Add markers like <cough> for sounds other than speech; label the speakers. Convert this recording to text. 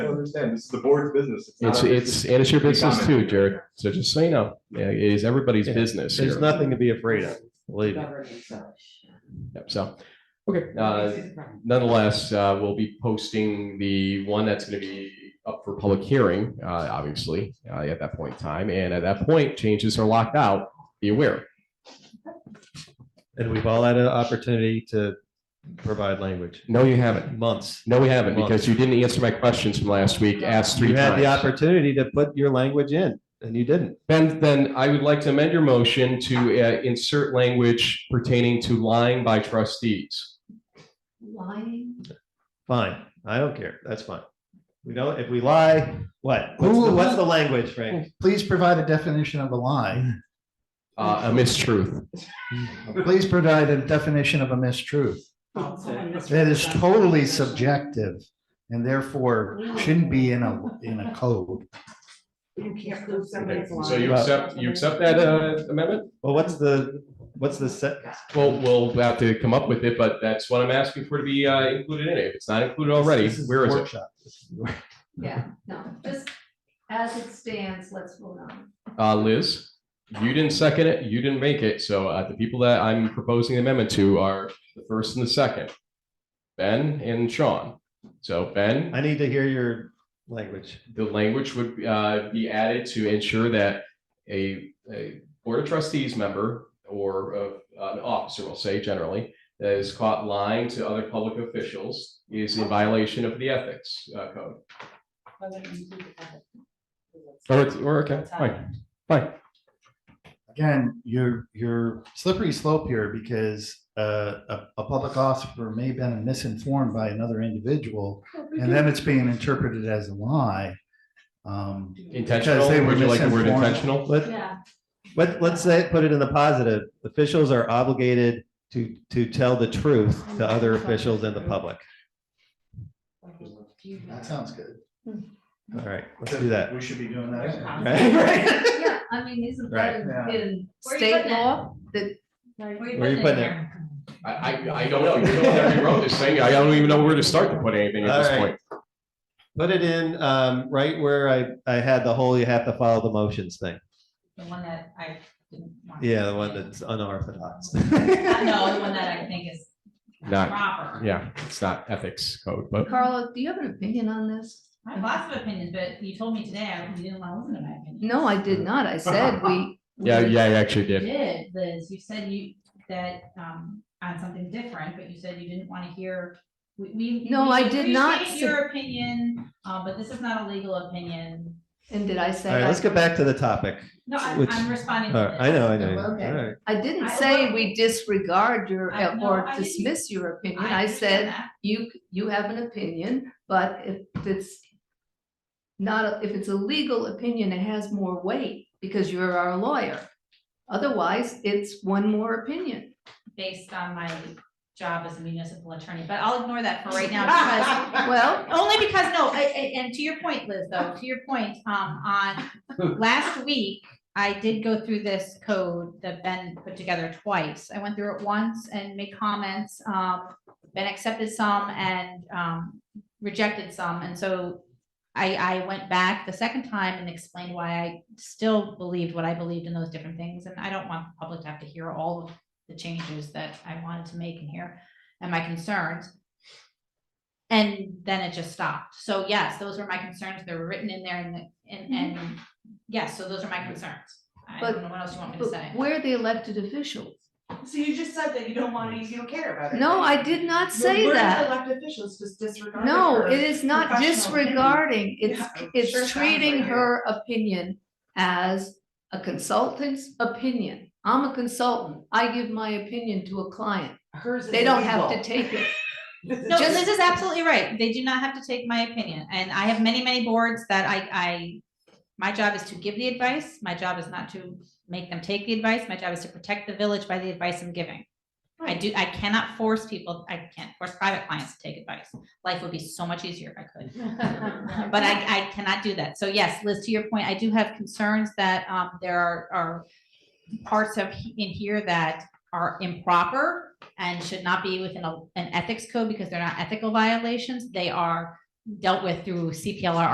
Speaker 1: I don't understand. This is the board's business. not
Speaker 2: It's,
Speaker 1: ours.
Speaker 2: it's, and it's your business too,
Speaker 1: Comment.
Speaker 2: Jared. So just so you know, yeah, it is everybody's
Speaker 3: Yeah,
Speaker 2: business
Speaker 3: There's
Speaker 2: here.
Speaker 3: nothing to be afraid of, believe me.
Speaker 2: Yep, So, okay, uh, nonetheless, uh, we'll be posting the one that's going to be up for public hearing, uh, obviously, uh, at that point in time. And at that point, changes are locked out. Be aware.
Speaker 3: And we've all had an opportunity to provide language,
Speaker 2: No, you haven't.
Speaker 3: months.
Speaker 2: No, we haven't, because you didn't answer my questions from last week. Asked three
Speaker 3: You had the
Speaker 2: times.
Speaker 3: opportunity to put your language in and you didn't.
Speaker 2: Then, then I would like to amend your motion to uh, insert language pertaining to lying by trustees.
Speaker 4: Lying.
Speaker 3: Fine, I don't care. That's fine. We don't, if we lie, what? What's
Speaker 5: Who-
Speaker 3: the, what's the language, Frank?
Speaker 5: Please provide a definition of
Speaker 3: <laughs>
Speaker 5: a lie.
Speaker 2: Uh, a mistruth.
Speaker 5: Please provide a definition of a mistruth. That is totally subjective and therefore shouldn't be in a, in a code.
Speaker 4: You can't prove
Speaker 2: Okay,
Speaker 4: somebody's lying.
Speaker 2: So you accept, you accept that uh, amendment?
Speaker 3: Well, what's the, what's the set?
Speaker 2: Well, we'll have to come up with it, but that's what I'm asking for to be uh, included in it. If it's not included already,
Speaker 5: This
Speaker 2: where is it?
Speaker 5: workshop.
Speaker 4: Yeah, no, just as it stands, let's vote on.
Speaker 2: Uh, Liz, you didn't second it, you didn't make it, so uh, the people that I'm proposing the amendment to are the first and the second. Ben and Sean. So Ben,
Speaker 3: I need to hear your language.
Speaker 2: the language would uh, be added to ensure that a, a board of trustees member or uh, an officer, we'll say generally, that is caught lying to other public officials is in violation of the ethics uh, code. Or, Oh, it's- or, okay, fine, fine.
Speaker 5: Again, you're, you're slippery slope here because uh, a, a public officer may have been misinformed by another individual and then it's being interpreted as a lie. Um,
Speaker 2: Intentional,
Speaker 5: they were
Speaker 2: would you like the word
Speaker 5: misinformed.
Speaker 2: intentional?
Speaker 3: Let,
Speaker 4: Yeah,
Speaker 3: let, let's say, put it in the positive. Officials are obligated to, to tell the truth to other officials and the public.
Speaker 5: That sounds good.
Speaker 3: All right, <laughs> let's do that.
Speaker 5: We should be doing that.
Speaker 3: Right, right.
Speaker 4: yeah, I mean, isn't that in-
Speaker 5: Right.
Speaker 4: in
Speaker 6: Where you
Speaker 4: state
Speaker 6: putting it?
Speaker 4: law? That.
Speaker 3: Where you putting it?
Speaker 2: I, I, I don't know, you don't have me wrote this thing, I don't even know where to start to put anything at this
Speaker 3: All right.
Speaker 2: point.
Speaker 3: Put it in, um, right where I, I had the whole, you have to follow the motions thing.
Speaker 6: The one that I didn't want.
Speaker 3: Yeah, the one that's unorthodox. <laughs>
Speaker 6: No, the one that <laughs> I think is
Speaker 2: Not,
Speaker 6: proper.
Speaker 2: yeah, it's not ethics code, but
Speaker 4: Carla, do you have an opinion on this?
Speaker 6: I have lots of opinions, but you told me today, I you didn't want to listen to my opinion.
Speaker 4: No, I did not. I said we.
Speaker 2: yeah, yeah, I actually
Speaker 6: You
Speaker 2: did.
Speaker 6: did, Liz, you said you, that, um, on something different, but you said you didn't want to hear, we, we.
Speaker 4: No,
Speaker 6: we
Speaker 4: I did not
Speaker 6: appreciate
Speaker 4: say-
Speaker 6: Your opinion, uh, but this is not a legal opinion.
Speaker 4: And did I
Speaker 3: All
Speaker 4: say?
Speaker 3: right, let's get back to the topic.
Speaker 6: No, I'm,
Speaker 3: Which-
Speaker 6: I'm responding.
Speaker 3: All
Speaker 6: to
Speaker 3: right,
Speaker 6: this.
Speaker 3: I know, I know.
Speaker 4: Okay.
Speaker 3: All right.
Speaker 4: I didn't
Speaker 6: I-
Speaker 4: say we disregard your
Speaker 6: I- no,
Speaker 4: or
Speaker 6: I didn't-
Speaker 4: dismiss your opinion. I
Speaker 6: understand
Speaker 4: said
Speaker 6: that.
Speaker 4: you, you have an opinion, but if it's not, a- if it's a legal opinion, it has more weight because you're our lawyer. Otherwise, it's one more opinion.
Speaker 6: Based on my job as a municipal attorney, but I'll ignore that for
Speaker 4: <laughs>
Speaker 6: right now because
Speaker 4: Well,
Speaker 6: <laughs> Only because, no, I, I- and to your point, Liz, though, to your point, um, on last week, I did go through this code that Ben put together twice. I went through it once and made comments, um, Ben accepted some and, um, rejected some, and so I, I went back the second time and explained why I still believed what I believed in those different things, and I don't want the public to have to hear all of the changes that I wanted to make in here and my concerns. And then it just stopped. So yes, those were my concerns. They were written in there and, the- and, and, yes, so those are my concerns. I
Speaker 4: Mm-hmm. But-
Speaker 6: don't know what else you want me to say.
Speaker 4: but we're the elected officials.
Speaker 7: So you just said that you don't want to, you don't care about it.
Speaker 4: No,
Speaker 7: right?
Speaker 4: I did not
Speaker 7: We're-
Speaker 4: say
Speaker 7: we're just
Speaker 4: that.
Speaker 7: Elected officials just disregard.
Speaker 4: No,
Speaker 7: her.
Speaker 4: it is not
Speaker 7: professional opinion.
Speaker 4: disregarding. It's,
Speaker 7: Yeah, it sure
Speaker 4: it's
Speaker 7: sounds
Speaker 4: treating
Speaker 7: like it.
Speaker 4: her opinion as a consultant's opinion. I'm a consultant. I give my opinion to a client.
Speaker 7: Hers is
Speaker 4: They don't have to
Speaker 7: legal. <laughs>
Speaker 4: take it.
Speaker 7: This is
Speaker 6: No,
Speaker 7: just-
Speaker 6: Liz is absolutely right. They do not have to take my opinion. And I have many, many boards that I, I, my job is to give the advice. My job is not to make them take the advice. My job is to protect the village by the advice I'm giving. I do, I cannot force people, I can't force private clients to take advice. Life would be so much easier if I could. <laughs> But I, I cannot do that. So yes, Liz, to your point, I do have concerns that, um, there are, are parts of, he- in here that are improper and should not be within a, an ethics code because they're not ethical violations. They are dealt with through CPLR